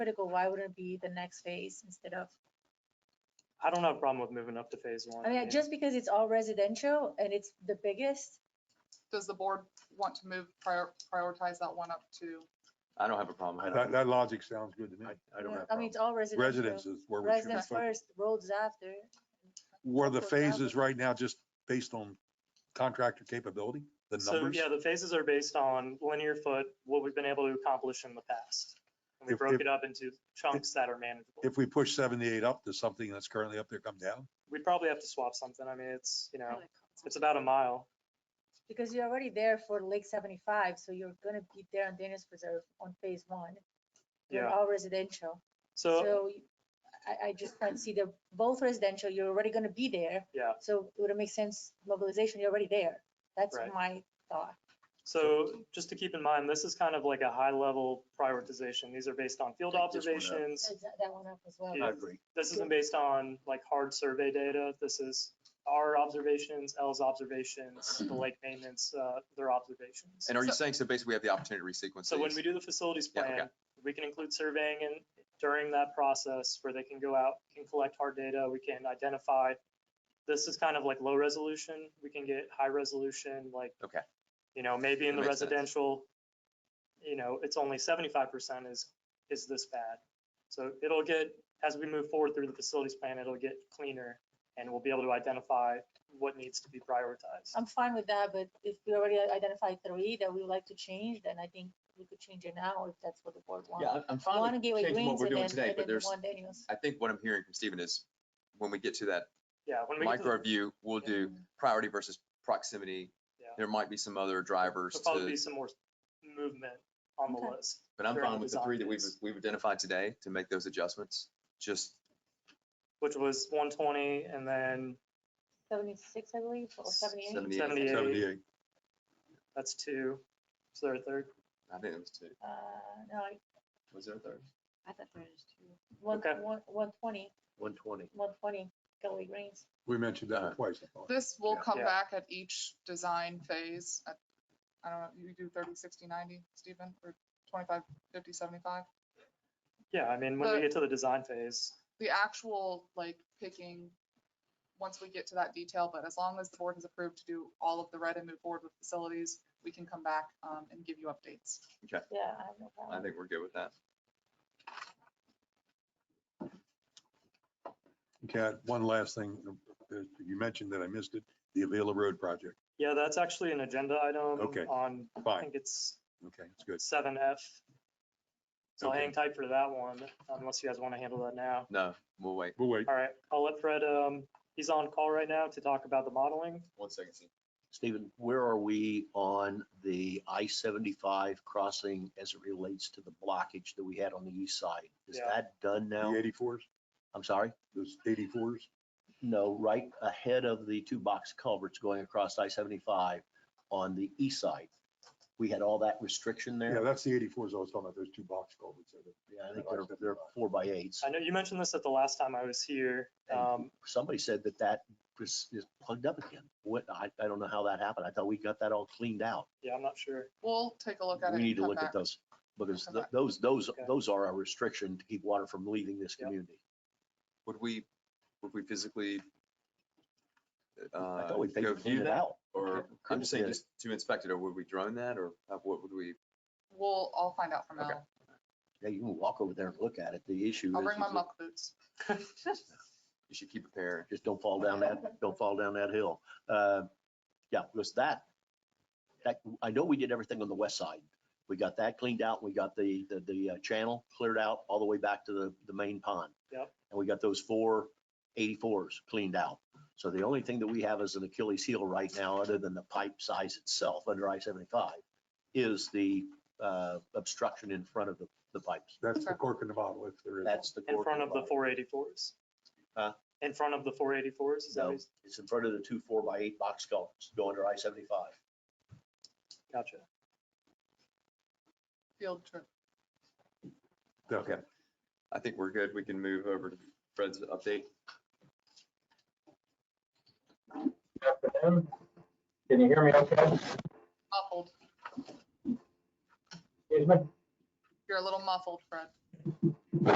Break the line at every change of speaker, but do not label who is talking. critical, why wouldn't it be the next phase instead of?
I don't have a problem with moving up to phase one.
I mean, just because it's all residential and it's the biggest,
Does the board want to move, prior- prioritize that one up to?
I don't have a problem. I
That,
don't,
that logic sounds good to me.
I I don't have a
I mean,
problem.
it's all residential.
Residences, where we should,
Residents
focus.
first, roads after.
where the
Work out.
phases right now, just based on contractor capability, the
So,
numbers.
yeah, the phases are based on linear foot, what we've been able to accomplish in the past. And we
If-
broke
if-
it up into chunks that are manageable.
If we push seventy-eight up to something that's currently up there, come down.
We'd probably have to swap something. I mean, it's, you know, it's about a mile.
Because you're already there for Lake seventy-five, so you're gonna be there on Daniels Preserve on phase one. You're
Yeah.
all residential.
So,
y- I, I just can't see the, both residential, you're already gonna be there.
Yeah.
So it would make sense, mobilization, you're already there. That's
Right.
my thought.
so just to keep in mind, this is kind of like a high level prioritization. These are based on field
Take this one out.
observations.
Is That that one up as well.
Yeah.
I agree.
This isn't based on like hard survey data. This is our observations, L's observations,
Mm-hmm.
the lake maintenance, uh, their observations.
And are you
So-
saying, so basically we have the opportunity to resequence
So when we
these?
do the facilities
Yeah, okay.
plan, we can include surveying and during that process where they can go out, can collect hard data, we can identify. This is kind of like low resolution, we can get high resolution, like.
Okay.
You know, maybe in
That
the
makes sense.
residential, you know, it's only seventy-five percent is, is this bad. So it'll get, as we move forward through the facilities plan, it'll get cleaner and we'll be able to identify what needs to be prioritized.
I'm fine with that, but if we already identified three that we would like to change, then I think we could change it now if that's what the board wants.
Yeah, I'm- I'm
One
fine with
Gateway
changing what
Greens
we're
and
doing
then,
today,
and
but
then
there's,
one Daniels.
I think what I'm hearing from Stephen is when we get to that
Yeah, when we. get to the-
micro review, we'll do priority versus proximity.
Yeah.
There might be some other drivers
There'll probably
to,
be some more movement on the
Okay.
list.
but I'm
during
fine with the
design
three that we've,
phase,
we've identified today to make those adjustments. Just
Which was one twenty and then
Seventy-six, I believe, or seventy-eight.
Seventy-
seventy-eight.
Seventy-eight.
That's two. Is there a third?
I think it was two.
Uh, no, I-
Was there a third?
I thought there was two.
one,
Okay.
one, one twenty,
One twenty.
one twenty, Gateway Greens.
We mentioned that
Uh-huh.
twice. I thought.
This will
Yeah.
come
Yeah.
back at each design phase. at- I don't know, you do 30, 60, 90, Stephen, or 25, 50, 75?
Yeah, I mean, when we
The-
get to the design phase,
The actual, like, picking, once we get to that detail, but as long as the board has approved to do all of the red and move forward with facilities, we can come back um, and give you updates.
Yeah, I have no
I
problem.
think we're good with that.
Cat, one last thing, uh, you mentioned that I missed it, the Avila Road project.
yeah, that's actually an agenda item
Okay.
on, I
Fine,
think it's
okay, that's good.
seven F. So
Okay.
hang tight for that one, unless you guys want to handle that now.
No, we'll wait.
We'll wait.
All right, I'll let Fred, um, he's on call right now to talk about the modeling.
One second. Steve.
Stephen, where are we on the I-75 crossing as it relates to the blockage that we had on the east side? Is
Yeah.
that done now?
The eighty-fours,
I'm sorry?
those eighty-fours,
No, right ahead of the two box culverts going across I-75 on the east side. We had all that restriction
yeah,
there.
that's the eighty-fours I was talking about, those two box culverts. there.
Yeah, I think they're, they're four by eights.
I know you mentioned this at the last time I was here. Um,
Somebody said that that was, is plugged up again. What, I, I don't know how that happened. I thought we got that all cleaned out.
yeah, I'm not sure.
We'll take a look at it.
We
and
need to
come
look
back.
at those, because
Come
th-
back.
those, those,
Okay.
those are a restriction to keep water from leaving this
Yep.
community.
Would we, would we physically?
I
uh,
Uh,
thought we
go
figured
view
it
that?
out.
Or, I'm just
Yeah.
saying, just to inspect it, or would we drone that, or uh, what would we?
We'll, I'll find out from
Okay.
Al.
Yeah, you can walk over there and look at it. The issue is.
I'll bring my
is that
muck boots.
You should keep a pair.
Just don't fall down that, don't fall down that hill. Uh, Yeah, because that, that, I know we did everything on the west side. We got that cleaned out. We got the, the, the uh, channel cleared out all the way back to the, the main pond.
Yep.
And we got those four 84s cleaned out. So the only thing that we have as an Achilles heel right now, other than the pipe size itself under I-75, is the uh, obstruction in front of the, the pipes.
That's the
Okay.
cork in the bottle, if there is. one.
That's the.
In
core
front of the
compromise.
four eighty-fours.
Huh?
In front of the four eighty-fours, is that what
No,
you-
it's in front of the two four by eight box culverts going to I-75.
Gotcha.
Field trip.
Definitely.
I think we're good. We can move over to Fred's update.
afternoon. Can you hear me okay?
Muffled.
Excuse me?
You're a little muffled, Fred.